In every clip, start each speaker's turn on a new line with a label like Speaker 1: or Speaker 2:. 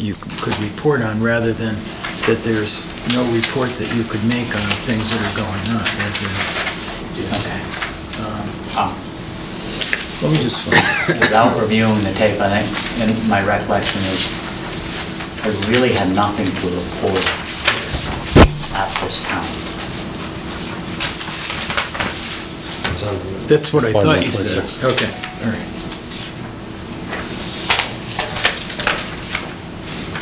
Speaker 1: you could report on, rather than that there's no report that you could make on things that are going on, as in,
Speaker 2: Okay. Um,
Speaker 1: let me just find,
Speaker 2: Without reviewing the tape, I think, and my recollection is, I really had nothing to report at this time.
Speaker 1: that's what I
Speaker 3: Find
Speaker 1: thought
Speaker 3: that
Speaker 1: you
Speaker 3: place.
Speaker 1: said. Okay, all right.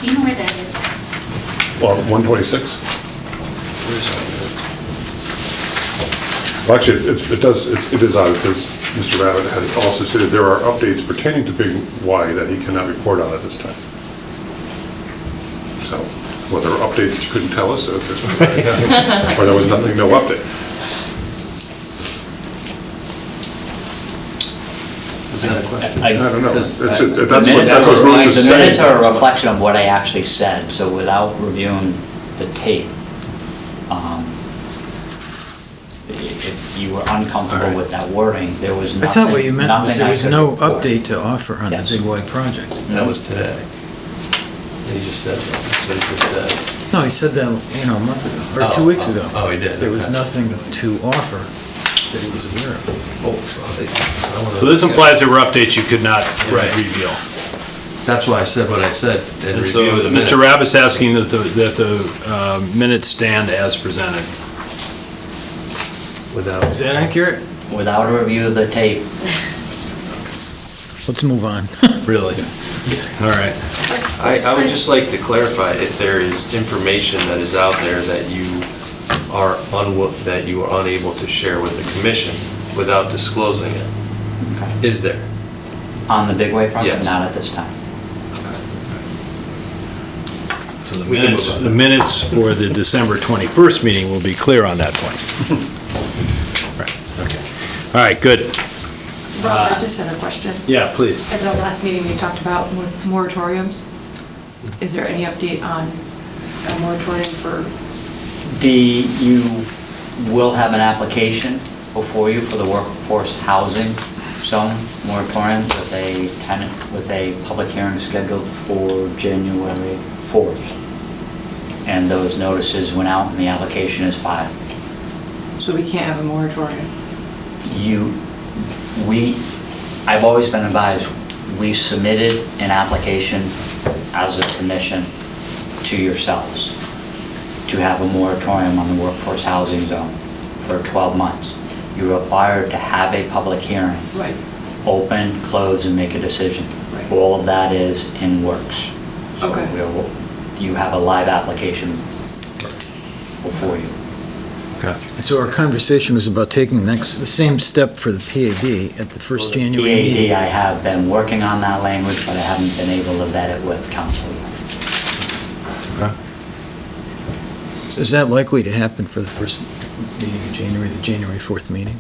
Speaker 4: Do you know where that is?
Speaker 3: Well, 126?
Speaker 1: Where's all
Speaker 3: Well, Actually, it's, it does, it's- it is odd, it says, Mr. Rabbit has also stated there are updates pertaining to Big Y that he cannot report on at this time. So, well, there were updates that you couldn't tell us, or there- or there was nothing, no update.
Speaker 5: Is that a question?
Speaker 3: I don't know. It's-
Speaker 5: Does-
Speaker 3: it's-
Speaker 5: I-
Speaker 3: That's
Speaker 2: uh, The
Speaker 3: what,
Speaker 2: minute-
Speaker 3: that's what Bruce is
Speaker 2: The
Speaker 3: saying.
Speaker 2: minutes are a reflection of what I actually said, so without reviewing the tape, um, i- if you were uncomfortable with that wording, there was
Speaker 1: that? I
Speaker 2: nothing.
Speaker 1: thought what you meant was
Speaker 2: nothing
Speaker 1: there
Speaker 2: I
Speaker 1: was
Speaker 2: could
Speaker 1: no
Speaker 2: report.
Speaker 1: update to offer on the
Speaker 2: Yes.
Speaker 1: Big Y project.
Speaker 5: That was today. He just said, that's what he just said.
Speaker 1: No, he said that, you know, a month ago, or
Speaker 5: Oh,
Speaker 1: two weeks
Speaker 5: oh,
Speaker 1: ago.
Speaker 5: oh, he did,
Speaker 1: There was
Speaker 5: okay.
Speaker 1: nothing to offer that he was aware of.
Speaker 5: Oh, I- I wanna-
Speaker 6: So this implies there were updates you could not
Speaker 5: Right.
Speaker 6: reveal.
Speaker 5: That's why I said what I said and
Speaker 6: And so
Speaker 5: review the minutes.
Speaker 6: Mr. Rabbit's asking that the, that the uh, minutes stand as presented.
Speaker 5: Without.
Speaker 1: Is that accurate?
Speaker 2: Without a review of the tape,
Speaker 1: Let's move on.
Speaker 6: Really? All right.
Speaker 7: I, I would just like to clarify if there is information that is out there that you are unwi, that you are unable to share with the commission without disclosing it. Is there?
Speaker 2: on the Big Way project,
Speaker 7: Yes.
Speaker 2: not at this time.
Speaker 5: So the
Speaker 7: We can
Speaker 6: Minutes-
Speaker 5: minutes.
Speaker 7: move
Speaker 6: The minutes for the December 21st meeting will be clear on that point. Right, okay. All right, good.
Speaker 8: Rob, I just had a question.
Speaker 6: Yeah, please.
Speaker 8: At the last meeting, we talked about mor- moratoriums. Is there any update on a moratorium for,
Speaker 2: The, you will have an application before you for the workforce housing zone moratorium with a tenant, with a public hearing scheduled for January 4th. And those notices went out and the application is filed.
Speaker 8: so we can't have a moratorium?
Speaker 2: You, we, I've always been advised, we submitted an application as a commission to yourselves to have a moratorium on the workforce housing zone for 12 months. You're required to have a public hearing,
Speaker 8: Right.
Speaker 2: open, close, and make a decision.
Speaker 8: Right.
Speaker 2: All of that is in works. So
Speaker 8: Okay.
Speaker 2: we'll- You have a live application before you.
Speaker 1: So our conversation was about taking next, the same step for the PAD at the first January
Speaker 2: EAD,
Speaker 1: meeting.
Speaker 2: I have been working on that language, but I haven't been able to vet it with council yet.
Speaker 1: Is that likely to happen for the first meeting in January, the January 4th meeting?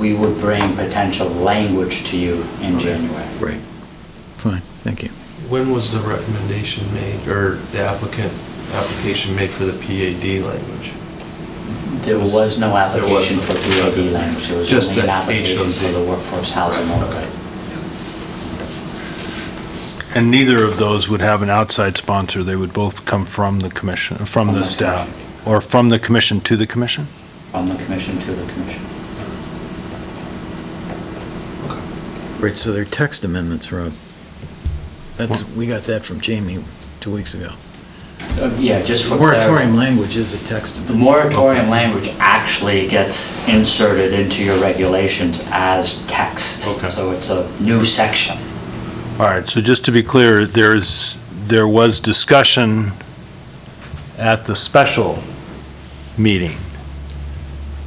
Speaker 2: We would bring potential language to you in January.
Speaker 1: Right. Fine, thank you.
Speaker 5: When was the recommendation made, or the applicant, application made for the PAD language?
Speaker 2: There was no application for
Speaker 5: There wasn't.
Speaker 2: PAD language, there was
Speaker 5: Just
Speaker 2: only an
Speaker 5: the
Speaker 2: application
Speaker 5: HOZ.
Speaker 2: for the workforce housing
Speaker 5: Right,
Speaker 2: overlay.
Speaker 6: And neither of those would have an outside sponsor. They would both come from the commission, from
Speaker 2: From
Speaker 6: the
Speaker 2: the
Speaker 6: staff, or from the commission to the commission?
Speaker 2: from the commission to the commission.
Speaker 1: Right, so they're text amendments, Rob. That's, we got that from Jamie two weeks ago.
Speaker 2: Uh, Yeah, just for clarity.
Speaker 1: Moratorium language is a text
Speaker 2: The
Speaker 1: amendment.
Speaker 2: moratorium language actually gets inserted into your regulations as text.
Speaker 6: Okay.
Speaker 2: So it's a new section.
Speaker 6: All right, so just to be clear, there's, there was discussion at the special meeting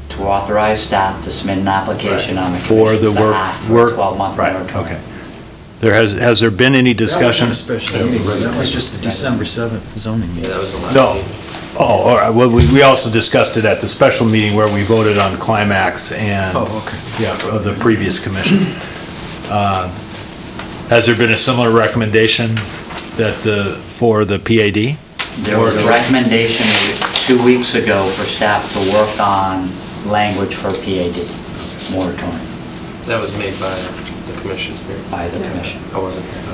Speaker 2: to authorize staff to submit an application on the
Speaker 6: for the
Speaker 2: commission's
Speaker 6: work,
Speaker 2: behalf Ah, for a
Speaker 6: work.
Speaker 2: 12-month
Speaker 6: right,
Speaker 2: moratorium.
Speaker 6: okay. There has, has there been any discussion?
Speaker 1: That wasn't a special meeting, that was just the December 7th zoning
Speaker 7: Yeah,
Speaker 1: meeting.
Speaker 7: that was the last.
Speaker 6: No.
Speaker 7: meeting.
Speaker 6: Oh, all right, well, we, we also discussed it at the special meeting where we voted on climax and.
Speaker 1: Oh, okay.
Speaker 6: Yeah, of the previous commission. Uh, Has there been a similar recommendation that the, for the PAD?
Speaker 2: There was a recommendation two weeks ago for staff to work on language for PAD moratorium
Speaker 7: That was made by the commission here.
Speaker 2: by the commission.
Speaker 7: I wasn't here.